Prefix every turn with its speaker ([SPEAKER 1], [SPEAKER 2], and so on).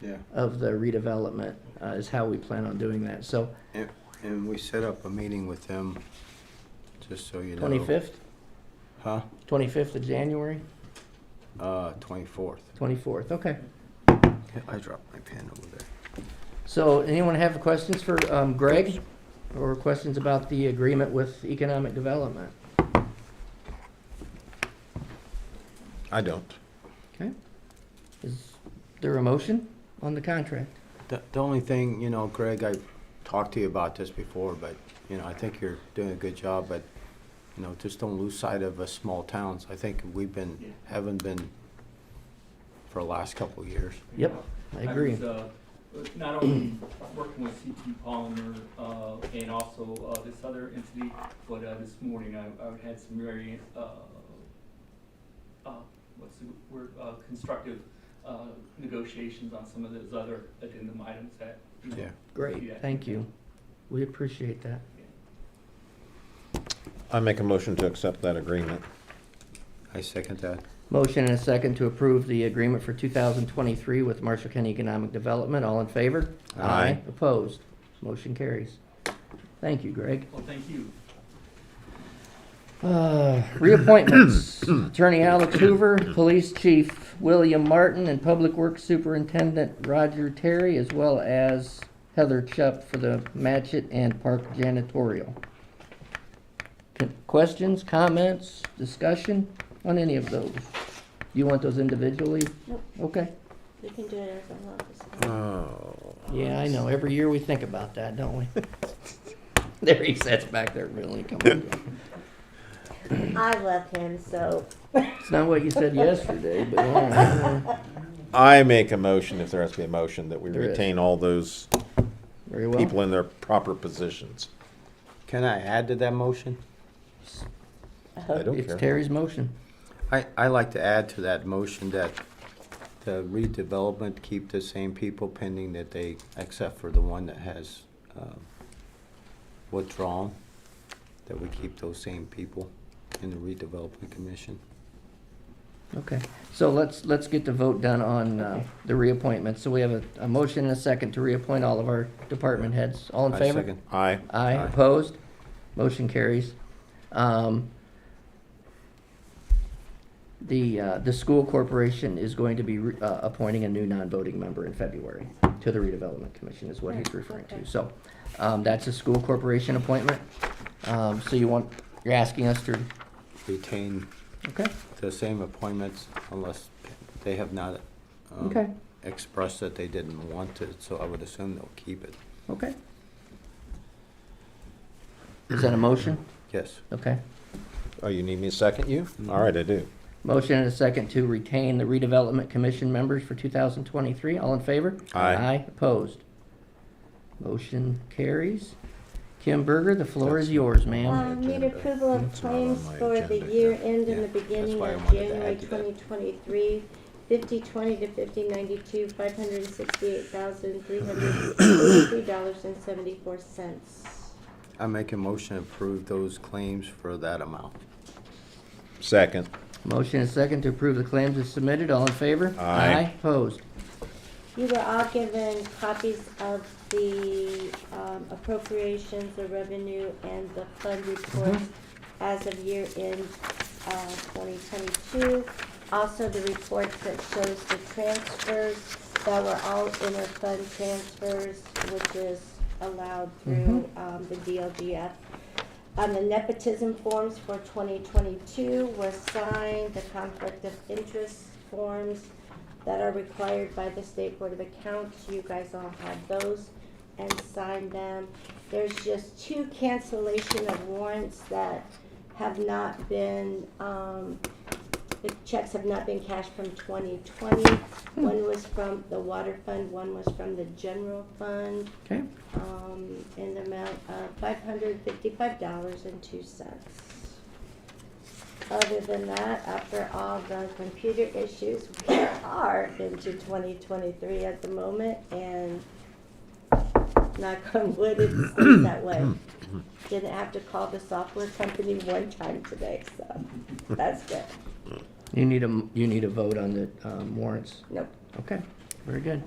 [SPEAKER 1] Yeah,
[SPEAKER 2] of the redevelopment, uh, is how we plan on doing that. So
[SPEAKER 1] and, and we set up a meeting with them, just so you know.
[SPEAKER 2] 25th,
[SPEAKER 1] Huh?
[SPEAKER 2] 25th of January,
[SPEAKER 1] Uh, twenty-fourth.
[SPEAKER 2] 24th, okay.
[SPEAKER 1] I dropped my pen over there.
[SPEAKER 2] So anyone have questions for um, Greg or questions about the agreement with economic development?
[SPEAKER 3] I don't.
[SPEAKER 2] Okay. Is there a motion on the contract?
[SPEAKER 1] The, the only thing, you know, Greg, I talked to you about this before, but, you know, I think you're doing a good job, but, you know, just don't lose sight of us small towns. I think we've been, haven't been for the last couple of years.
[SPEAKER 2] Yep, I agree.
[SPEAKER 4] was, uh, Not only working with CT Palmer, uh, and also, uh, this other entity, but, uh, this morning I, I had some very, uh, uh, what's the word, uh, constructive, uh, negotiations on some of those other addendum items that, you know,
[SPEAKER 1] Yeah.
[SPEAKER 2] Great, thank you. We appreciate that.
[SPEAKER 3] I make a motion to accept that agreement.
[SPEAKER 1] I second that.
[SPEAKER 2] Motion and a second to approve the agreement for 2023 with Marshall County Economic Development. All in favor?
[SPEAKER 3] Aye.
[SPEAKER 2] Opposed? Motion carries. Thank you, Greg.
[SPEAKER 4] Well, thank you.
[SPEAKER 2] Uh, Reappointments. Attorney Alex Hoover, Police Chief William Martin, and Public Works Superintendent Roger Terry, as well as Heather Chup for the Matchett and Park Janitorial. Con- Questions, comments, discussion on any of those? You want those individually?
[SPEAKER 5] Nope.
[SPEAKER 2] Okay.
[SPEAKER 5] We can do it as a office.
[SPEAKER 3] Oh.
[SPEAKER 2] Yeah, I know. Every year we think about that, don't we? There he sits back there, really. Come on.
[SPEAKER 1] Um,
[SPEAKER 5] I love him, so
[SPEAKER 2] It's not what you said yesterday, but all right.
[SPEAKER 3] I make a motion, if there has to be a motion, that we
[SPEAKER 2] There is.
[SPEAKER 3] retain all those
[SPEAKER 2] Very well.
[SPEAKER 3] people in their proper positions.
[SPEAKER 1] Can I add to that motion?
[SPEAKER 3] I don't
[SPEAKER 2] It's
[SPEAKER 3] care.
[SPEAKER 2] Terry's motion.
[SPEAKER 1] I, I like to add to that motion that the redevelopment keep the same people pending that they, except for the one that has um, withdrawn, that we keep those same people in the redevelopment commission.
[SPEAKER 2] Okay, so let's, let's get the vote done on uh,
[SPEAKER 5] Okay.
[SPEAKER 2] the reappointment. So we have a, a motion and a second to reappoint all of our department heads. All in
[SPEAKER 1] I
[SPEAKER 2] favor?
[SPEAKER 1] second.
[SPEAKER 3] Aye.
[SPEAKER 2] Aye,
[SPEAKER 1] Aye.
[SPEAKER 2] opposed? Motion carries. Um, The, uh, the school corporation is going to be re- uh, appointing a new non-voting member in February to the redevelopment commission is what he's
[SPEAKER 5] Right,
[SPEAKER 2] referring to.
[SPEAKER 5] okay.
[SPEAKER 2] So um, that's a school corporation appointment. Um, So you want, you're asking us to,
[SPEAKER 1] Retain
[SPEAKER 2] okay,
[SPEAKER 1] the same appointments unless they have not um,
[SPEAKER 2] Okay.
[SPEAKER 1] expressed that they didn't want to, so I would assume they'll keep it.
[SPEAKER 2] okay. Is that a motion?
[SPEAKER 1] Yes.
[SPEAKER 2] Okay.
[SPEAKER 3] Oh, you need me to second you? All right, I do.
[SPEAKER 2] Motion and a second to retain the redevelopment commission members for 2023. All in favor?
[SPEAKER 3] Aye.
[SPEAKER 2] Aye, opposed. Motion carries. Kim Berger, the floor is yours, ma'am.
[SPEAKER 5] um, need approval of
[SPEAKER 3] It's not on
[SPEAKER 5] claims
[SPEAKER 3] my
[SPEAKER 5] for the
[SPEAKER 3] agenda
[SPEAKER 5] year
[SPEAKER 3] here.
[SPEAKER 5] end
[SPEAKER 1] Yeah,
[SPEAKER 5] in the
[SPEAKER 1] that's
[SPEAKER 5] beginning
[SPEAKER 1] why I
[SPEAKER 5] of
[SPEAKER 1] wanted to
[SPEAKER 5] January
[SPEAKER 1] add to that.
[SPEAKER 5] 2023, 5020 to 5092, $568,363.74.
[SPEAKER 1] I make a motion to approve those claims for that amount.
[SPEAKER 3] Second.
[SPEAKER 2] Motion and a second to approve the claims as submitted. All in favor?
[SPEAKER 3] Aye.
[SPEAKER 2] Opposed.
[SPEAKER 5] You were all given copies of the um, appropriations, the revenue, and the fund reports as of year end uh, 2022. Also, the reports that shows the transfers that were all inter-fund transfers, which is allowed through um, the DLGF. Um, The nepotism forms for 2022 were signed, the conflict of interest forms that are required by the State Board of Accounts, you guys all had those and signed them. There's just two cancellation of warrants that have not been, um, the checks have not been cashed from 2020. One was from the water fund, one was from the general fund
[SPEAKER 2] Okay,
[SPEAKER 5] um, in the amount of five hundred fifty-five dollars and two cents. Other than that, after all the computer issues, we are into twenty twenty-three at the moment and knock on wood, it stays that way. Didn't have to call the software company one time today, so that's good.
[SPEAKER 2] you need a, m- you need a vote on the um, warrants.
[SPEAKER 5] Nope.
[SPEAKER 2] Okay, very good.